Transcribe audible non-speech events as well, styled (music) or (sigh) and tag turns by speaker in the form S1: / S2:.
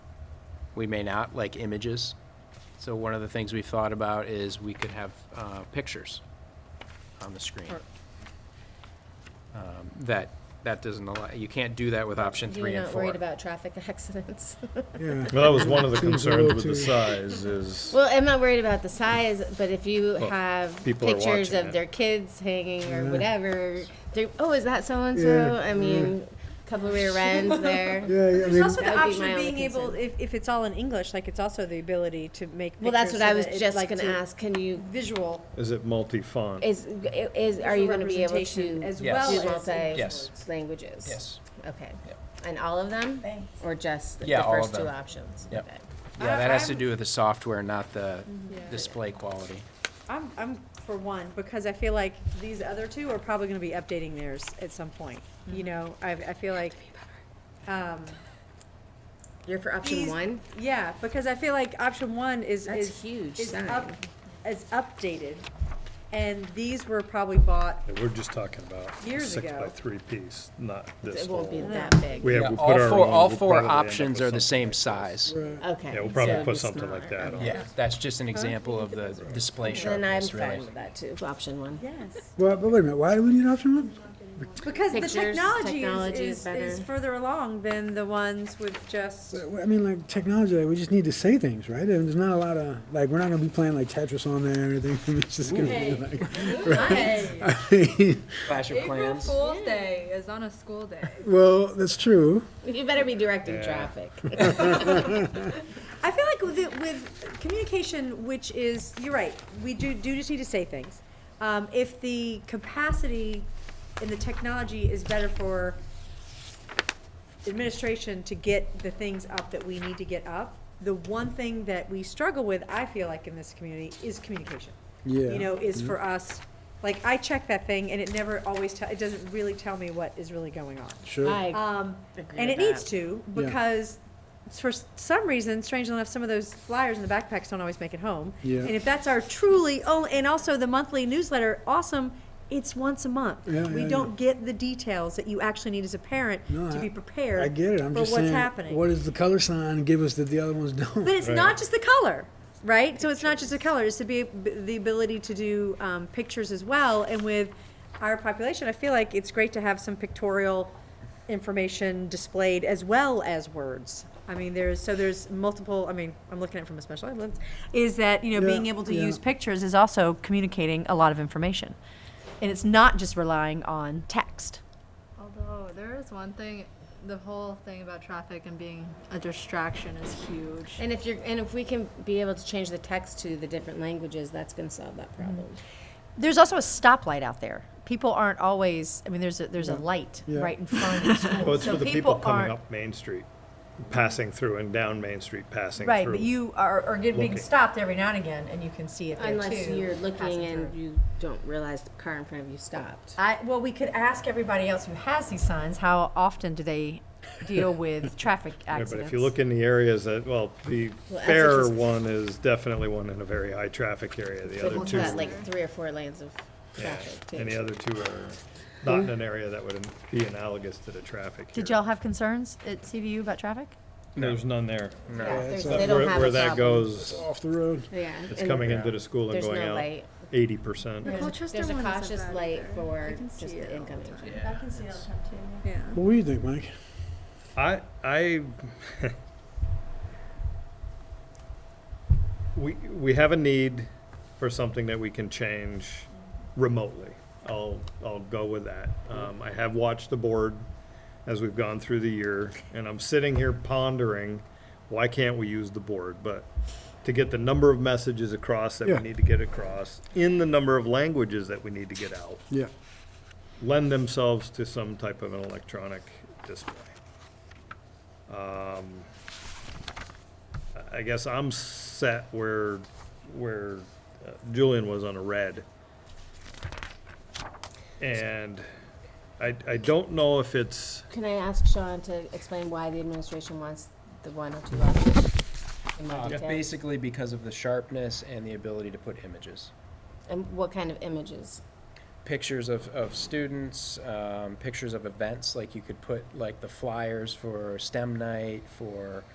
S1: we may not, like images. So one of the things we've thought about is we could have uh, pictures on the screen.
S2: Or-
S1: Um, That, that doesn't allow, you can't do that with option three
S2: You're
S1: and
S2: not
S1: four.
S2: worried about
S3: (laughs)
S2: traffic accidents?
S4: Yeah.
S5: Well, that was one of the
S4: Seems a
S5: concerns
S4: little
S5: with
S4: too-
S5: the size is,
S2: Well, I'm not worried about the size, but if you have
S5: people are
S2: pictures
S5: watching
S2: of
S5: it.
S2: their kids hanging or
S4: Yeah.
S2: whatever, they're, oh, is that so-and-so?
S4: Yeah,
S2: I mean, couple of
S3: (laughs)
S2: rear ends there.
S4: Yeah, yeah, I
S3: There's
S4: mean,
S3: also the
S2: That would be
S3: option
S2: my
S3: of
S2: only
S3: being able,
S2: concern.
S3: if, if it's all in English, like it's also the ability to make.
S2: Well, that's
S3: pictures
S2: what I
S3: so
S2: was
S3: that it-
S2: just
S3: like
S2: gonna
S3: to-
S2: ask, can you,
S3: Visual.
S5: is it multi-font?
S2: is, is, are you gonna be able
S3: representation
S2: to
S3: as
S2: do
S1: Yes.
S3: well as
S1: Yes.
S2: multi-languages?
S1: Yes.
S2: Okay.
S1: Yep.
S2: And all of them?
S3: Thanks.
S2: Or just the
S1: Yeah,
S2: the
S1: all of
S2: first two
S1: them.
S2: options?
S1: Yep.
S2: Okay.
S1: Yeah,
S3: I-
S1: that has to
S3: I'm-
S1: do with the software, not the
S2: Mm-hmm. Yeah.
S1: display quality.
S3: I'm, I'm for one, because I feel like these other two are probably gonna be updating theirs at some point,
S2: Mm-hmm.
S3: you know, I, I feel like. Um,
S2: You're for option
S3: these-
S2: one?
S3: Yeah, because I feel like option one is,
S2: That's
S3: is.
S2: huge
S3: is
S2: sign.
S3: up- Is updated, and these were probably bought,
S5: We're just talking about
S3: Years
S5: six
S3: ago.
S5: by three piece, not this
S2: It won't be
S5: whole-
S2: that big.
S5: We have,
S1: Yeah,
S5: we put
S1: all
S5: our
S1: four-
S5: own,
S1: All
S5: we'll
S1: four
S5: probably end up
S1: options
S5: with
S1: are the same
S5: something like this.
S1: size.
S2: Okay.
S5: Yeah, we'll probably
S2: so
S5: put
S2: it's
S5: something
S2: smaller.
S5: like that on.
S1: Yeah, that's just an example of the display
S2: Then I'm
S1: sharpness,
S2: fine
S1: really.
S2: with that too, option one.
S3: yes.
S4: Well, but wait a minute, why do we need option one?
S3: Because the
S2: Pictures,
S3: technology is,
S2: technology is
S3: is, is
S2: better.
S3: further along than the ones with just,
S4: But, well, I mean, like, technology, like, we just need to say things, right? And there's not a lot of, like, we're not gonna be playing like Tetris on there or anything. (laughs) It's just gonna be like, (laughs) I mean,
S1: Flash of plans.
S6: Fool's Day is on a school day.
S4: well, that's true.
S2: You better be directing
S5: Yeah. (laughs)
S2: traffic.
S3: (laughs) I feel like with, it- with communication, which is, you're right, we do, do just need to say things. Um, if the capacity and the technology is better for administration to get the things up that we need to get up, the one thing that we struggle with, I feel like in this community, is communication.
S4: Yeah.
S3: You know, is for us, like, I check that thing and it never always tell, it doesn't really tell me what is really going on.
S4: Sure.
S3: Um,
S2: Agree
S3: and
S2: with
S3: it needs
S2: that.
S3: to,
S4: Yeah.
S3: because s- for s- some reason, strangely enough, some of those flyers in the backpacks don't always make it home.
S4: Yeah.
S3: And if that's our truly, oh, and also the monthly newsletter, awesome, it's once a month.
S4: Yeah,
S3: We
S4: yeah,
S3: don't get the details that you actually need as a parent
S4: No,
S3: to
S4: I-
S3: be prepared.
S4: I get it, I'm
S3: for
S4: just
S3: what's
S4: saying,
S3: happening.
S4: what is the color sign? Give us that the other ones don't.
S3: But it's not just the color, right? So it's not just the color, it's to be, the ability to do, um, pictures as well, and with our population, I feel like it's great to have some pictorial information displayed as well as words. I mean, there's, so there's multiple, I mean, I'm looking at it from a special ed lens, is that, you know, being
S4: Yeah,
S3: able to
S4: yeah.
S3: use pictures is also communicating a lot of information. And it's not just relying on text.
S6: Although there is one thing, the whole thing about traffic and being a distraction is huge.
S2: And if you're, and if we can be able to change the text to the different languages, that's gonna solve that problem.
S7: There's also a stoplight out there. People aren't always. I mean, there's a there's a light
S4: Yeah.
S7: right in front of
S5: (laughs)
S7: the school.
S5: Well, it's
S7: so
S5: for the people coming
S7: aren't-
S5: up Main Street, passing through and down Main Street, passing through.
S7: Right, but you are, are get-
S5: Looking.
S7: being stopped every now and again, and you can see it there
S2: Unless
S7: too.
S2: you're looking
S7: passing
S2: and
S7: through.
S2: you don't realize the car in front of you stopped.
S7: I, well, we could ask everybody else who has these signs how often do they
S5: (laughs)
S7: deal with traffic
S5: Yeah,
S7: accidents.
S5: But if you look in the areas that, well, the
S2: Well,
S5: fair
S2: Essex is-
S5: one is definitely one in a very high traffic area, the other
S2: But it's
S5: two.
S2: got like three or four lanes of
S5: yeah,
S2: traffic too.
S5: And the other two are not in an area that would be analogous to the traffic here.
S7: Did y'all have concerns at CVU about traffic?
S5: There's none there.
S2: Yeah, there's-
S5: But
S2: They don't
S5: where-
S2: have a
S5: Where that
S2: problem.
S5: goes,
S4: (laughs) Off the road.
S2: Yeah.
S5: it's
S2: and
S5: coming into the school and
S2: There's
S5: going
S2: no
S5: out
S2: light.
S5: eighty percent.
S6: The Colchester
S2: There's a
S6: one isn't
S2: cautious
S6: bad
S2: light
S6: either.
S2: for
S6: I can
S2: just
S6: see it
S2: the
S6: all
S2: incoming. traffic.
S6: I can see it all the time too.
S3: Yeah.
S4: What do you think, Mike?
S5: I, I, (laughs) we, we have a need for something that we can change remotely. I'll, I'll go with that. Um, I have watched the board as we've gone through the year, and I'm sitting here pondering, why can't we use the board? But to get the number of messages across that we
S4: Yeah.
S5: need to get across, in the number of languages that we need to get out,
S4: Yeah.
S5: lend themselves to some type of an electronic display. Um, I- I guess I'm set where, where uh, Julian was on a red. And I, I don't know if it's,
S2: Can I ask Sean to explain why the administration wants the one or two options in
S5: Uh,
S2: more detail?
S1: Uh, Basically because of the sharpness and the ability to put images.
S2: And what kind of images?
S1: pictures of, of students, um, pictures of events, like you could put like the flyers for STEM night, for